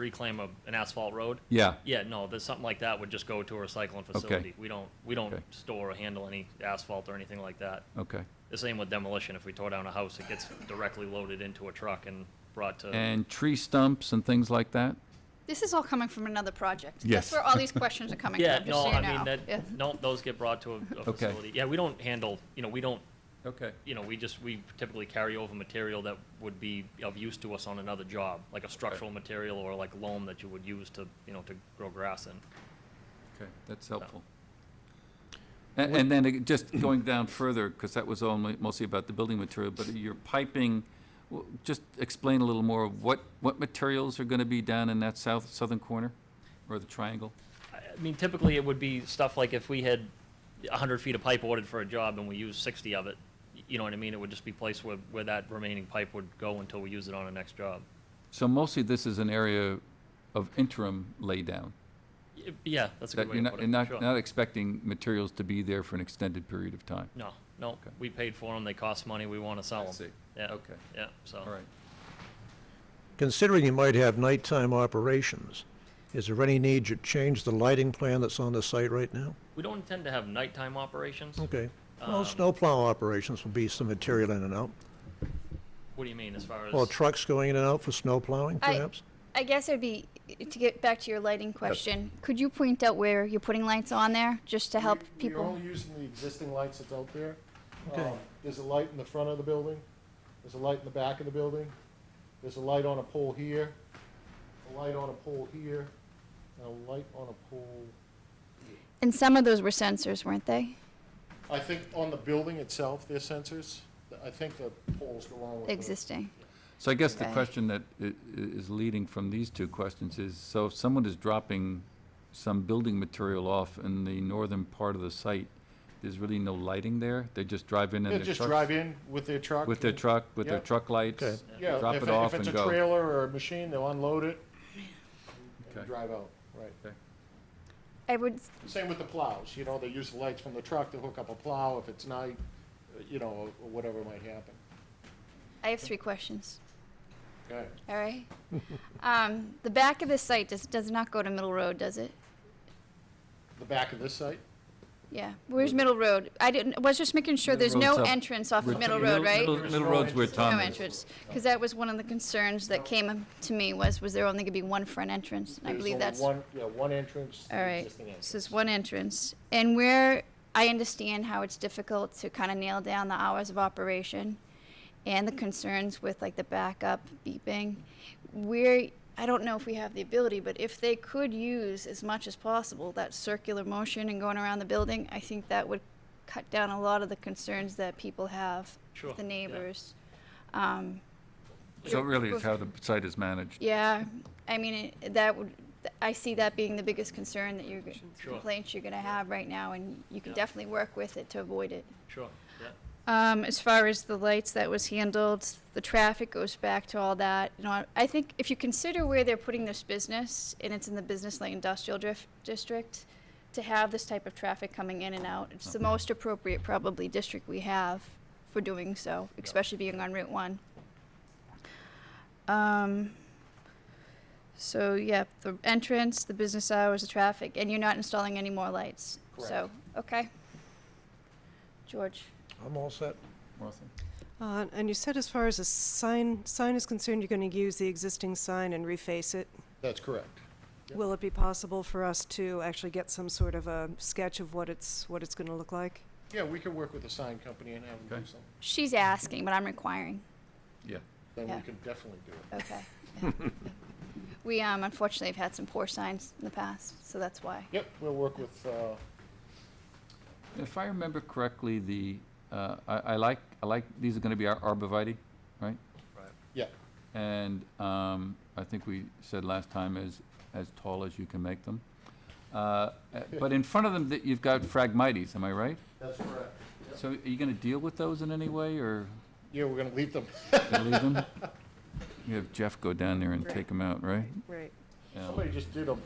reclaim a, an asphalt road. Yeah. Yeah, no, there's something like that would just go to a recycling facility. We don't, we don't Okay. Oh. store or handle any asphalt or anything like that. Okay. The same with demolition. If we tore down a house, it gets directly loaded into a truck and brought to, And tree stumps and things like that? This is all coming from another project. Yes. That's where all these questions are coming yeah, from, just no, so you I mean, know. Yeah. that, no, those get brought to a- a Okay. facility. Yeah, we don't handle, you know, we don't Okay. you know, we just, we typically carry over material that would be of use to us on another job, like a structural material or like loam that you would use to, you know, to grow grass in. Okay, that's helpful. A- And then it- just going down further, because that was only, mostly about the building material, but your piping, w- just explain a little more of what, what materials are going to be down in that south, southern corner or the triangle? I I mean, typically it would be stuff like if we had a hundred feet of pipe ordered for a job and we used sixty of it, y- you know what I mean? It would just be placed where, where that remaining pipe would go until we use it on the next job. So mostly this is an area of interim laydown. Y- Yeah, that's a good That way to you're not, put you're it, not, sure. not expecting materials to be there for an extended period of time. No, no, we paid for them, they cost money, we wanna sell I them. see. Yeah, Okay. yeah, so. All right. Considering you might have nighttime operations, is there any need to change the lighting plan that's on the site right now? We don't intend to have nighttime operations. Okay. Well, snowplow operations will be some material in and out. What do you mean as far as? Or trucks going in and out for snowplowing, I- perhaps? I guess it'd be, to get back to your lighting question, could you point out where you're putting lights on there, just to help We- We're people? only using the existing lights that's out there. Okay. Um, There's a light in the front of the building, there's a light in the back of the building, there's a light on a pole here, a light on a pole here, and a light on a pole. And some of those were sensors, weren't they? I think on the building itself, there's sensors. I think the poles go along with the. Existing. So I guess the Right. question that i- i- is leading from these two questions is, so if someone is dropping some building material off in the northern part of the site, there's really no lighting there? They just drive in in They their just trucks- drive in with their truck. With their truck, with their Yeah. truck Okay. lights, Yeah, drop if it it- off If and it's a go? trailer or a machine, they'll unload it Okay. and drive out, right. I would, Same with the plows, you know, they use the lights from the truck to hook up a plow if it's night, uh, you know, or whatever might happen. I have three questions, Okay. all right? Um, the back of the site does, does not go to Middle Road, does it? The back of this site? Yeah, where's Middle Road? I didn't, was just making sure Middle there's no Road's up. entrance off We're of Middle talking- Road, right? Middle- Middle Road's where No Tom is. entrance, because that was one of the concerns that came to me was, was there only gonna be one front entrance? And I There's believe only that's, all One, yeah, one entrance. the right. existing entrance. So it's one entrance. And where, I understand how it's difficult to kind of nail down the hours of operation and the concerns with like the backup beeping. Where, I don't know if we have the ability, but if they could use as much as possible that circular motion and going around the building, I think that would cut down a lot of the concerns that people have, Sure, with the yeah. neighbors. Um, So it really is how the site is managed. yeah, I mean, it- that would, I see that being the biggest concern that you're, Sure. complaints you're gonna have right now, and you can Yeah. definitely work with it to avoid it. Sure, yeah. Um, as far as the lights that was handled, the traffic goes back to all that, you know, I- I think if you consider where they're putting this business, and it's in the business light industrial drift, district, to have this type of traffic coming in and out, it's the most appropriate probably district we have for doing so, especially being on Route One. Um, so, yeah, the entrance, the business hours, the traffic, and you're not installing any more lights, so, okay. George? I'm all set. Martha? Uh, And you said as far as a sign, sign is concerned, you're going to use the existing sign and reface it. That's correct. Yep. Will it be possible for us to actually get some sort of a sketch of what it's, what it's going to look like? Yeah, we could work with the sign company and have them do Okay. something. She's asking, but I'm requiring. Yeah. Then Yeah. we could definitely do it. Okay. Yeah. we um, unfortunately have had some poor signs in the past, so that's why. Yep, we'll work with, uh, If I remember correctly, the, uh, I I like, I like, these are going to be ar- arborvitae, right? yeah, And um, I think we said last time, as, as tall as you can make them. Uh, uh, But in front of them, that you've got phragmites, am I right? that's correct. So are you going to deal with those in any way, or Yeah, we're gonna leave them. leave them? You have Jeff go down there and take them out, right? Right. Yeah. Somebody just did a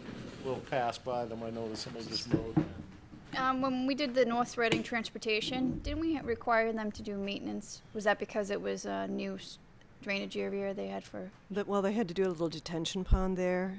little pass by them. I noticed somebody just rode. Um, when we did the North Reading transportation, didn't we require them to do maintenance? Was that because it was a new s- drainage area they had for? That, well, they had to do a little detention pond there.